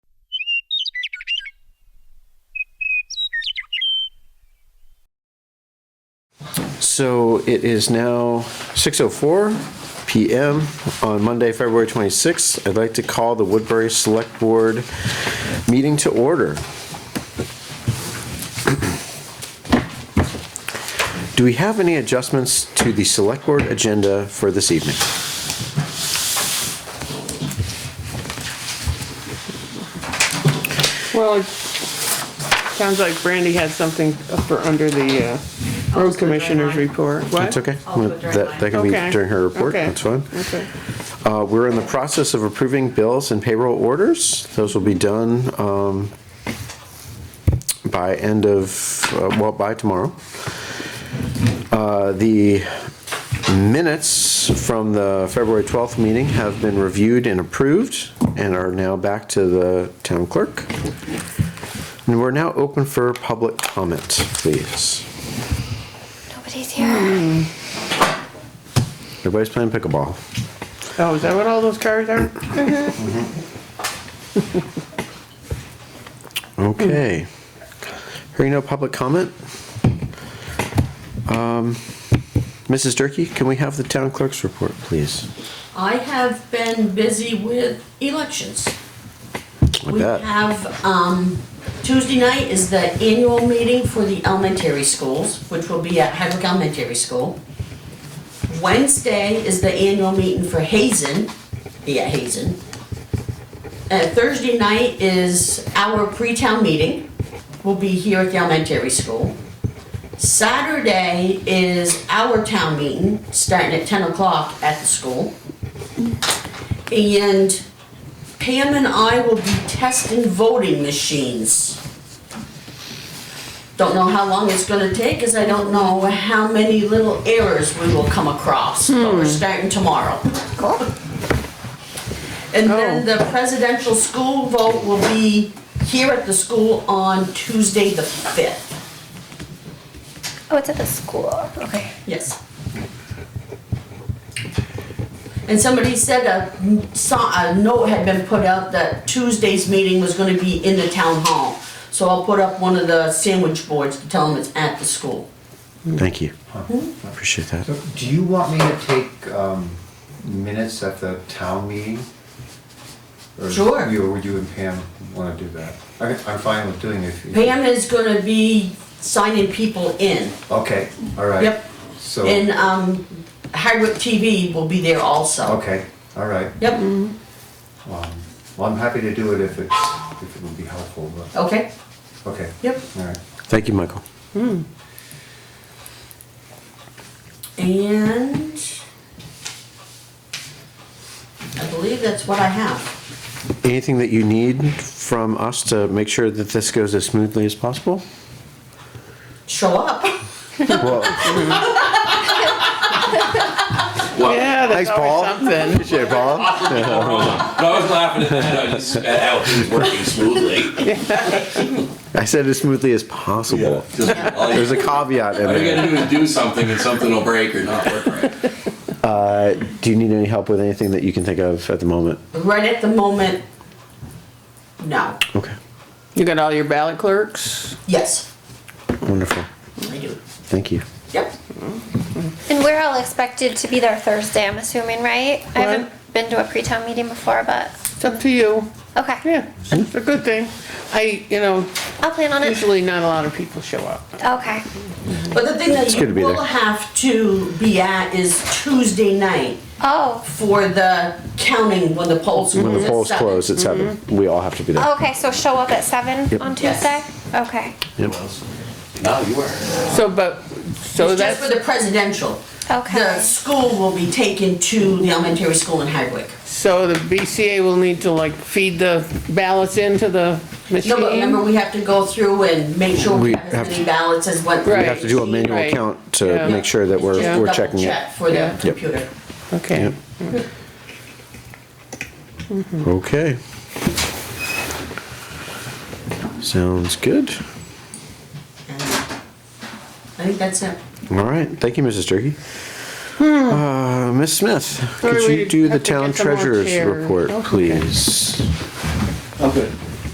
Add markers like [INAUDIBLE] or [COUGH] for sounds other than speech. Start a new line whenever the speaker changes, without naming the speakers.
So it is now 6:04 PM on Monday, February 26th. I'd like to call the Woodbury Select Board meeting to order. [CLEARS THROAT] Do we have any adjustments to the Select Board agenda for this evening?
Well, it sounds like Brandy had something for under the uh,
Oh,
road commissioner's report. What?
It's okay.
I'll do it during
That that can be
mine. Okay.
during her report.
Okay.
That's fine.
Okay.
Uh, We're in the process of approving bills and payroll orders. Those will be done um, by end of, uh, well, by tomorrow. Uh, The minutes from the February 12th meeting have been reviewed and approved and are now back to the town clerk. And we're now open for public comment, please. Hmm.
Nobody's here.
Everybody's playing pickleball.
Oh, is that what all those cars are?
Okay. Hearing no public comment. Um, Mrs. Durkey, can we have the town clerk's report, please?
I have been busy with elections.
I
We
bet.
have, um, Tuesday night is the annual meeting for the elementary schools, which will be at Hardwick Elementary School. Wednesday is the annual meeting for Hazen, be at Hazen. Uh, Thursday night is our pre-town meeting, will be here at the elementary school. Saturday is our town meeting, starting at ten o'clock at the school. And Pam and I will be testing voting machines. Don't know how long it's gonna take, cause I don't know how many little errors we will come across, but we're starting tomorrow. And then the presidential school vote will be here at the school on Tuesday the fifth.
Oh, it's at the school. Okay.
Yes. And somebody said a, saw, a note had been put out that Tuesday's meeting was gonna be in the town hall. So I'll put up one of the sandwich boards to tell them it's at the school.
Thank you. Appreciate that.
So, do you want me to take um, minutes at the town meeting? Or
Sure.
you- Or would you and Pam want to do that? I- I'm fine with doing it. if you-
Pam is gonna be signing people in.
Okay, all right.
Yep.
So,
And, um, Hardwick TV will be there also.
okay, all right.
Yep,
Um, Well, I'm happy to do it if it's, if it would be helpful, but,
okay,
okay,
yep.
all right.
Thank you, Michael.
And I believe that's what I have.
Anything that you need from us to make sure that this goes as smoothly as possible?
Show up.
[LAUGHS] Well,
Yeah, that's
Oh, Thanks, Paul.
always something.
Appreciate it, Paul.
But I was laughing at that.
[LAUGHS]
I just at how he was working smoothly.
I said as smoothly as possible.
Just, all you,
There's a caveat in
all you
there.
gotta do is do something, and something will break or not work right.
Uh, Do you need any help with anything that you can think of at the moment?
Right at the moment, no.
Okay,
You got all your ballot clerks?
Yes,
wonderful.
I do.
Thank you.
Yep.
And we're all expected to be there Thursday, I'm assuming, right? I haven't been to a pre-town meeting before, but
It's up to you.
okay.
Yeah, it's a good thing. I, you know,
I'll plan on it.
usually not a lot of people show up.
Okay.
But the thing that
good to
you
be
will
there.
have to be at is Tuesday night
Oh.
for the counting when the polls.
When the polls
seven.
close at seven, we all have to be there.
Okay. So show up at seven
Yep.
on
Yes.
Tuesday. Okay.
Yep.
No, you were.
So, but, so
It's just for
that's,
the presidential.
Okay.
The school will be taken to the elementary school in Hardwick.
so the BCA will need to like feed the ballots into the
No, but remember,
machine?
we have to go through and make sure
We
we have
have
as
to-
many ballots as what.
Right.
We have to do a manual
Right.
count to
Yeah.
make sure that we're,
Just
we're
double
checking it.
check For the
Yeah.
Yep.
computer.
Okay.
Okay. Sounds good.
And I think that's it.
All right, thank you, Mrs. Turkey. Uh, Ms. Smith,
Hmm. Sorry,
could
we
you do the
have to
town
get some more
treasurer's
chairs.
report,
Okay.
please?
I'm good.